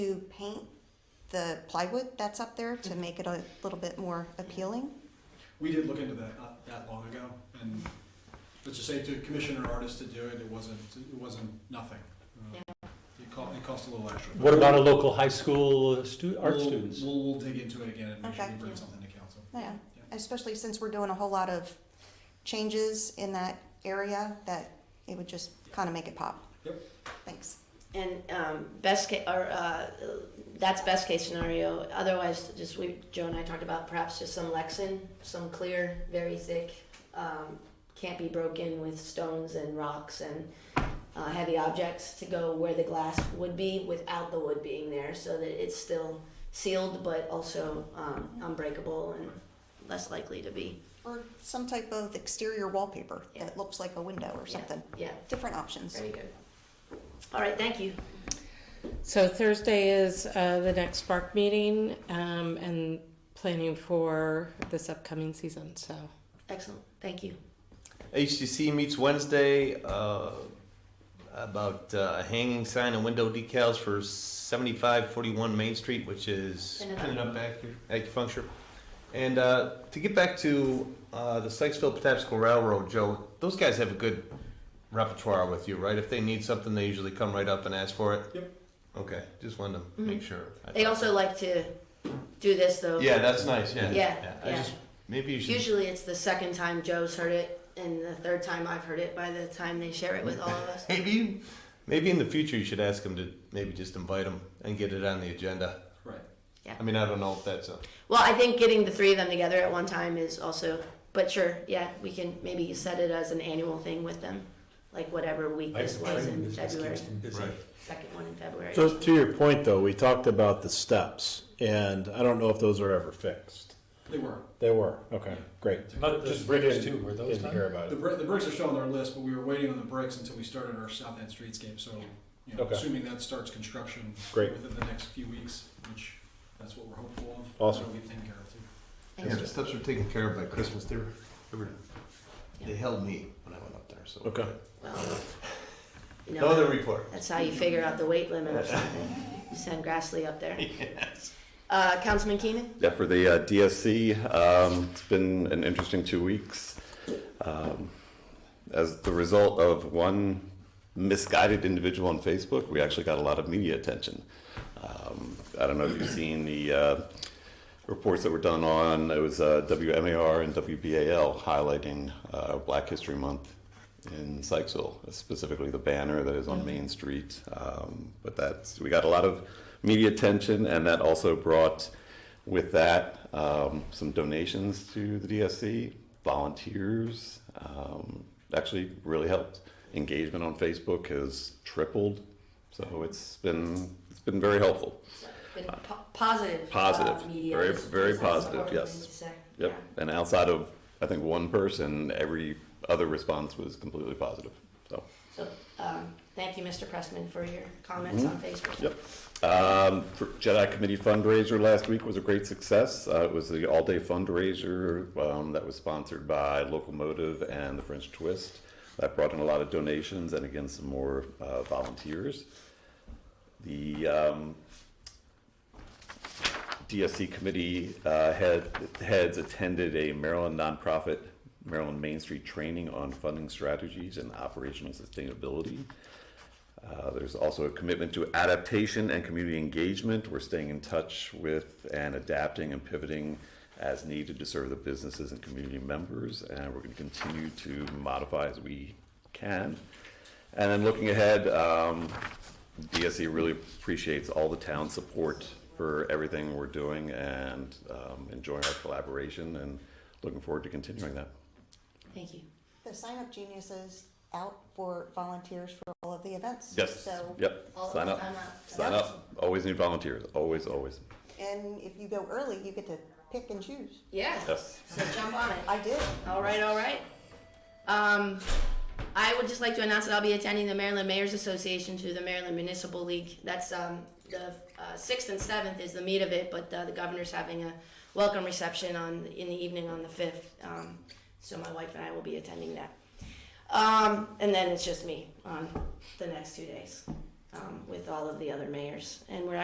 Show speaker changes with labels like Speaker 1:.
Speaker 1: to paint the plywood that's up there to make it a little bit more appealing.
Speaker 2: We did look into that not that long ago, and let's just say to commission an artist to do it, it wasn't, it wasn't nothing. Uh, It cost, it cost a little extra. but
Speaker 3: What about a local high school uh, stu- art
Speaker 2: we'll-
Speaker 3: students?
Speaker 2: We'll, we'll dig into it again and make sure we
Speaker 1: Okay.
Speaker 2: bring something to council.
Speaker 1: Yeah, especially since we're doing a whole lot of changes in that area that it would just kind of make it pop.
Speaker 2: Yep.
Speaker 1: Thanks.
Speaker 4: And um, best case, or uh, that's best case scenario. Otherwise, just we Joe and I talked about perhaps just some Lexan, some clear, very thick, um, can't be broken with stones and rocks and uh, heavy objects to go where the glass would be without the wood being there, so that it's still sealed but also um, unbreakable and less likely to be.
Speaker 1: Or some type of exterior wallpaper that looks like a window or
Speaker 4: Yeah,
Speaker 1: something.
Speaker 4: Yeah,
Speaker 1: Different options.
Speaker 4: very good. All right, thank you.
Speaker 5: So Thursday is uh, the next Spark meeting um, and planning for this upcoming season. So
Speaker 4: Excellent, thank you.
Speaker 6: HTC meets Wednesday uh, about uh, a hanging sign and window decals for 7541 Main Street, which is
Speaker 4: Pin it up.
Speaker 6: pin it up acu- acupuncture. And uh, to get back to uh, the Sykesville Patapsco Railroad, Joe, those guys have a good repertoire with you, right? If they need something, they usually come right up and ask for it.
Speaker 2: Yep.
Speaker 6: Okay, just wanted to make sure. I
Speaker 4: Mm-hmm. They
Speaker 6: thought-
Speaker 4: also like to do this though.
Speaker 6: Yeah, that's nice. Yeah.
Speaker 4: Yeah,
Speaker 6: I
Speaker 4: yeah.
Speaker 6: just maybe you should.
Speaker 4: Usually it's the second time Joe's heard it and the third time I've heard it by the time they share it with all of us.
Speaker 6: Maybe, you- maybe in the future you should ask him to maybe just invite him and get it on the agenda.
Speaker 2: Right.
Speaker 6: I mean, I don't know if that's a.
Speaker 4: Well, I think getting the three of them together at one time is also, but sure, yeah, we can maybe set it as an annual thing with them. Like whatever week this was in February,
Speaker 6: Right.
Speaker 4: second one in February.
Speaker 7: So to your point, though, we talked about the steps, and I don't know if those are ever fixed.
Speaker 2: They were.
Speaker 7: They were, okay, great.
Speaker 3: Not
Speaker 7: Just
Speaker 3: those
Speaker 7: didn't-
Speaker 3: two, were those
Speaker 7: Didn't
Speaker 3: done?
Speaker 7: hear about
Speaker 2: The
Speaker 7: it.
Speaker 2: brick, the bricks are still on their list, but we were waiting on the bricks until we started our South End streetscape, so, you know,
Speaker 7: Okay.
Speaker 2: assuming that starts construction
Speaker 7: Great.
Speaker 2: within the next few weeks, which, that's what we're hopeful of.
Speaker 7: Awesome.
Speaker 2: That'll be taken care of, too.
Speaker 4: Thank
Speaker 6: yeah,
Speaker 4: you.
Speaker 6: the steps were taken care of by Christmas. They were, they were, they
Speaker 4: Yeah.
Speaker 6: held me when I went up there. So
Speaker 7: Okay.
Speaker 4: Well, you
Speaker 6: No other
Speaker 4: know,
Speaker 6: report.
Speaker 4: that's how you figure out the weight limit or something. Send Grassley up there. Uh, Councilman Keenan?
Speaker 8: Yeah, for the uh, DSC, um, it's been an interesting two weeks. Um, As the result of one misguided individual on Facebook, we actually got a lot of media attention. Um, I don't know if you've seen the uh, reports that were done on, it was uh, WMAR and WBAL highlighting uh, Black History Month in Sykesville, specifically the banner that is on Main Street. Um, But that's, we got a lot of media attention, and that also brought with that, um, some donations to the DSC, volunteers, um, actually really helped. Engagement on Facebook has tripled, so it's been it's been very helpful.
Speaker 4: Been po- positive. uh,
Speaker 8: Positive.
Speaker 4: media
Speaker 8: Very-
Speaker 4: is-
Speaker 8: very
Speaker 4: is also
Speaker 8: positive,
Speaker 4: what we
Speaker 8: yes.
Speaker 4: need to say.
Speaker 8: Yep.
Speaker 4: Yeah.
Speaker 8: And outside of I think one person, every other response was completely positive. So.
Speaker 4: So, um, thank you, Mr. Pressman, for your comments on Facebook.
Speaker 8: Mm-hmm. Yep. Um, for Jedi Committee fundraiser last week was a great success. Uh, it was the all-day fundraiser um, that was sponsored by Locomotive and the French Twist. That brought in a lot of donations and again some more uh, volunteers. The um, DSC committee uh, head, heads attended a Maryland nonprofit, Maryland Main Street training on funding strategies and operational sustainability. Uh, There's also a commitment to adaptation and community engagement. We're staying in touch with and adapting and pivoting as needed to serve the businesses and community members, and we're going to continue to modify as we can. And then looking ahead, um, DSE really appreciates all the town's support for everything we're doing and um, enjoying our collaboration and looking forward to continuing that.
Speaker 4: Thank you.
Speaker 1: The Sign Up Genius is out for volunteers for all of the events.
Speaker 8: Yes,
Speaker 1: So,
Speaker 8: yep,
Speaker 4: All-
Speaker 8: sign up,
Speaker 4: sign up.
Speaker 8: sign up. Always need volunteers, always, always.
Speaker 1: and if you go early, you get to pick and choose.
Speaker 4: Yeah,
Speaker 8: Yes.
Speaker 4: so jump on it.
Speaker 1: I did.
Speaker 4: All right, all right. Um, I would just like to announce that I'll be attending the Maryland Mayor's Association through the Maryland Municipal League. That's um, the uh, sixth and seventh is the meat of it, but uh, the governor's having a welcome reception on in the evening on the fifth. Um, so my wife and I will be attending that. Um, and then it's just me on the next two days um, with all of the other mayors, and we're